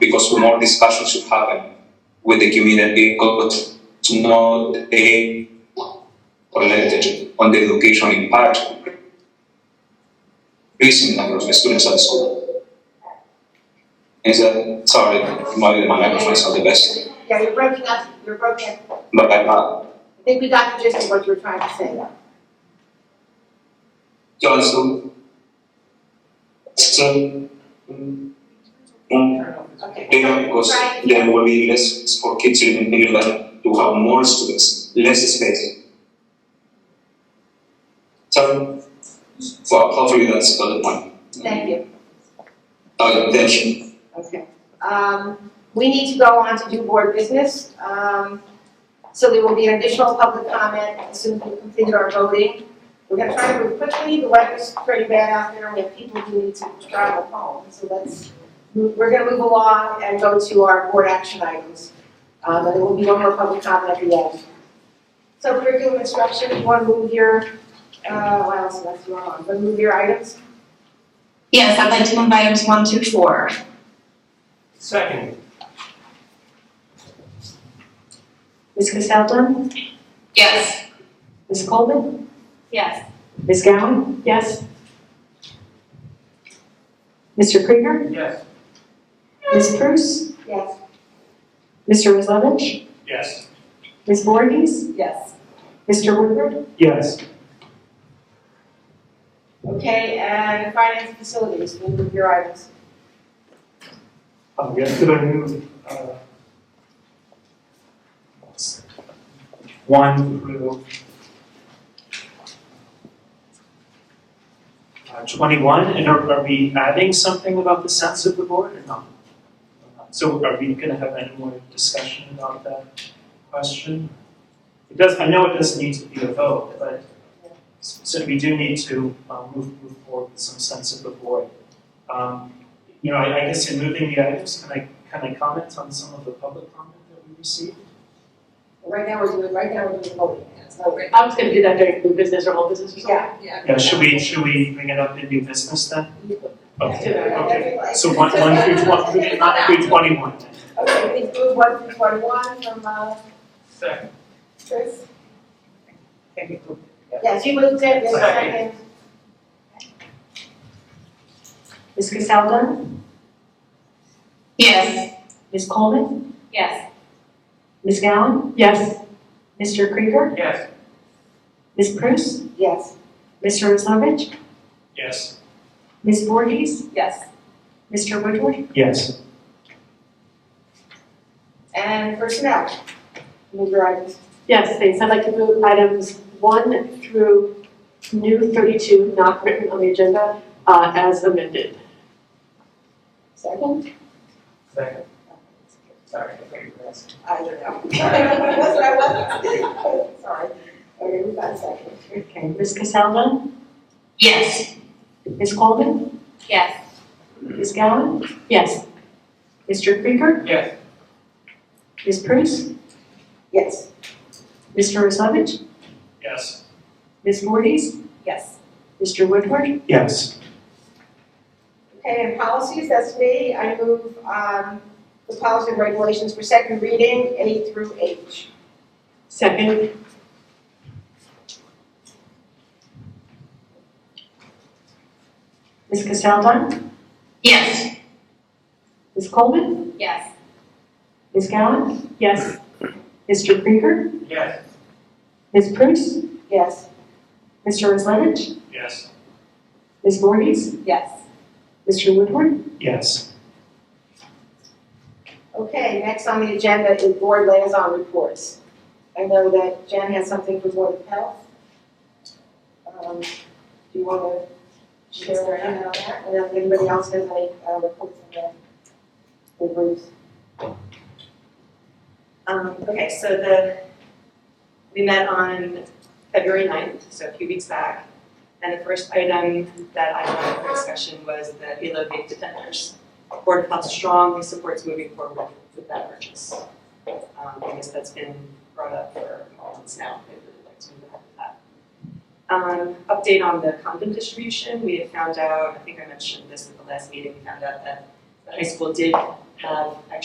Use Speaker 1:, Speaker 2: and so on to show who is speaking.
Speaker 1: also more discussion should happen with the community, got to know the knowledge on the education impact, increasing number of students at the school. Is that, sorry, maybe my microphones are the best,
Speaker 2: Yeah, you're breaking up, you're broken. I
Speaker 1: but I'm not.
Speaker 2: think we got the gist of what you were trying to say.
Speaker 1: Johnson. So, um,
Speaker 2: Okay.
Speaker 1: then of course,
Speaker 2: Right.
Speaker 1: there will be less for kids in Finland to have more students, less space. So, well, hopefully that's the point.
Speaker 2: Thank you.
Speaker 1: Uh, thank you.
Speaker 2: Okay. Um, we need to go on to do board business. Um, so there will be an additional public comment as soon as we completed our voting. We're gonna try to move quickly, the weather's pretty bad out there, we have people who need to travel home, so let's, move- we're gonna move along and go to our board action items. Um, and there will be one more public comment at the end. So curriculum instruction, you wanna move your, uh, what else, that's wrong, but move your items?
Speaker 3: Yes, I'd like to move items one through four.
Speaker 4: Second.
Speaker 5: Ms. Casaldo?
Speaker 3: Yes.
Speaker 5: Ms. Coleman?
Speaker 3: Yes.
Speaker 5: Ms. Gowan? Yes. Mr. Krieger?
Speaker 4: Yes.
Speaker 5: Ms. Prus?
Speaker 2: Yes.
Speaker 5: Mr. Rizlovich?
Speaker 4: Yes.
Speaker 5: Ms. Voorhees?
Speaker 2: Yes.
Speaker 5: Mr. Woodward?
Speaker 4: Yes.
Speaker 2: Okay, and finance facilities, we'll move your items.
Speaker 4: Um, yes, could I move, uh, one through uh, twenty-one, and are, are we adding something about the sense of the board or not? So are we gonna have any more discussion about that question? It does, I know it doesn't need to be a vote, but so we do need to, uh move, move forward with some sense of the board. Um, you know, I, I guess in moving the items, can I, can I comment on some of the public comment that we received?
Speaker 2: Right now, we're doing, right now, we're doing voting, that's not great.
Speaker 5: I was gonna do that during new business or old business or
Speaker 2: Yeah, yeah.
Speaker 4: Yeah, should we, should we bring it up in new business then? Okay,
Speaker 2: Yeah.
Speaker 4: okay. So one, one through twen- through- not through twenty-one then.
Speaker 2: Okay, we move one through twenty-one from, uh,
Speaker 4: Second.
Speaker 2: Chris? Yes, you moved it, yes, second.
Speaker 4: Second.
Speaker 5: Ms. Casaldo?
Speaker 3: Yes.
Speaker 5: Ms. Coleman?
Speaker 3: Yes.
Speaker 5: Ms. Gowan? Yes. Mr. Krieger?
Speaker 4: Yes.
Speaker 5: Ms. Prus?
Speaker 2: Yes.
Speaker 5: Mr. Rizlovich?
Speaker 4: Yes.
Speaker 5: Ms. Voorhees?
Speaker 2: Yes.
Speaker 5: Mr. Woodward?
Speaker 4: Yes.
Speaker 2: And personnel, move your items.
Speaker 6: Yes, thanks. I'd like to move items one through new thirty-two, not written on the agenda, uh, as amended.
Speaker 2: Second?
Speaker 4: Second. Sorry.
Speaker 2: I don't know. That's what I was. Sorry. Okay, we got a second.
Speaker 5: Okay, Ms. Casaldo?
Speaker 3: Yes.
Speaker 5: Ms. Coleman?
Speaker 3: Yes.
Speaker 5: Ms. Gowan? Yes. Mr. Krieger?
Speaker 4: Yes.
Speaker 5: Ms. Prus?
Speaker 2: Yes.
Speaker 5: Mr. Rizlovich?
Speaker 4: Yes.
Speaker 5: Ms. Voorhees?
Speaker 2: Yes.
Speaker 5: Mr. Woodward?
Speaker 4: Yes.
Speaker 2: Okay, and policies, that's me. I move, um, the policy and regulations for second reading, A through H.
Speaker 6: Second,
Speaker 5: Ms. Casaldo?
Speaker 3: Yes.
Speaker 5: Ms. Coleman?
Speaker 3: Yes.
Speaker 5: Ms. Gowan?
Speaker 6: yes.
Speaker 5: Mr. Krieger?
Speaker 4: Yes.
Speaker 5: Ms. Prus?
Speaker 2: Yes.
Speaker 5: Mr. Rizlovich?
Speaker 4: Yes.
Speaker 5: Ms. Voorhees?
Speaker 2: Yes.
Speaker 5: Mr. Woodward?
Speaker 4: Yes.
Speaker 2: Okay, next on the agenda is board liaison reports. I know that Jen has something for Board of Health. Um, Do you want to share with on that? And if anybody else has any uh, reports on the, the groups?
Speaker 7: Um, okay, so the, we met on February 9th, so a few weeks back. And the first item that I wanted for discussion was the Elevate Defenders. Board of Health strongly supports moving forward with that purchase. Um, I guess that's been brought up for months now, I'd really like to move ahead with that. Um, update on the condom distribution, we had found out, I think I mentioned this at the last meeting, we found out that
Speaker 5: the high school did have extra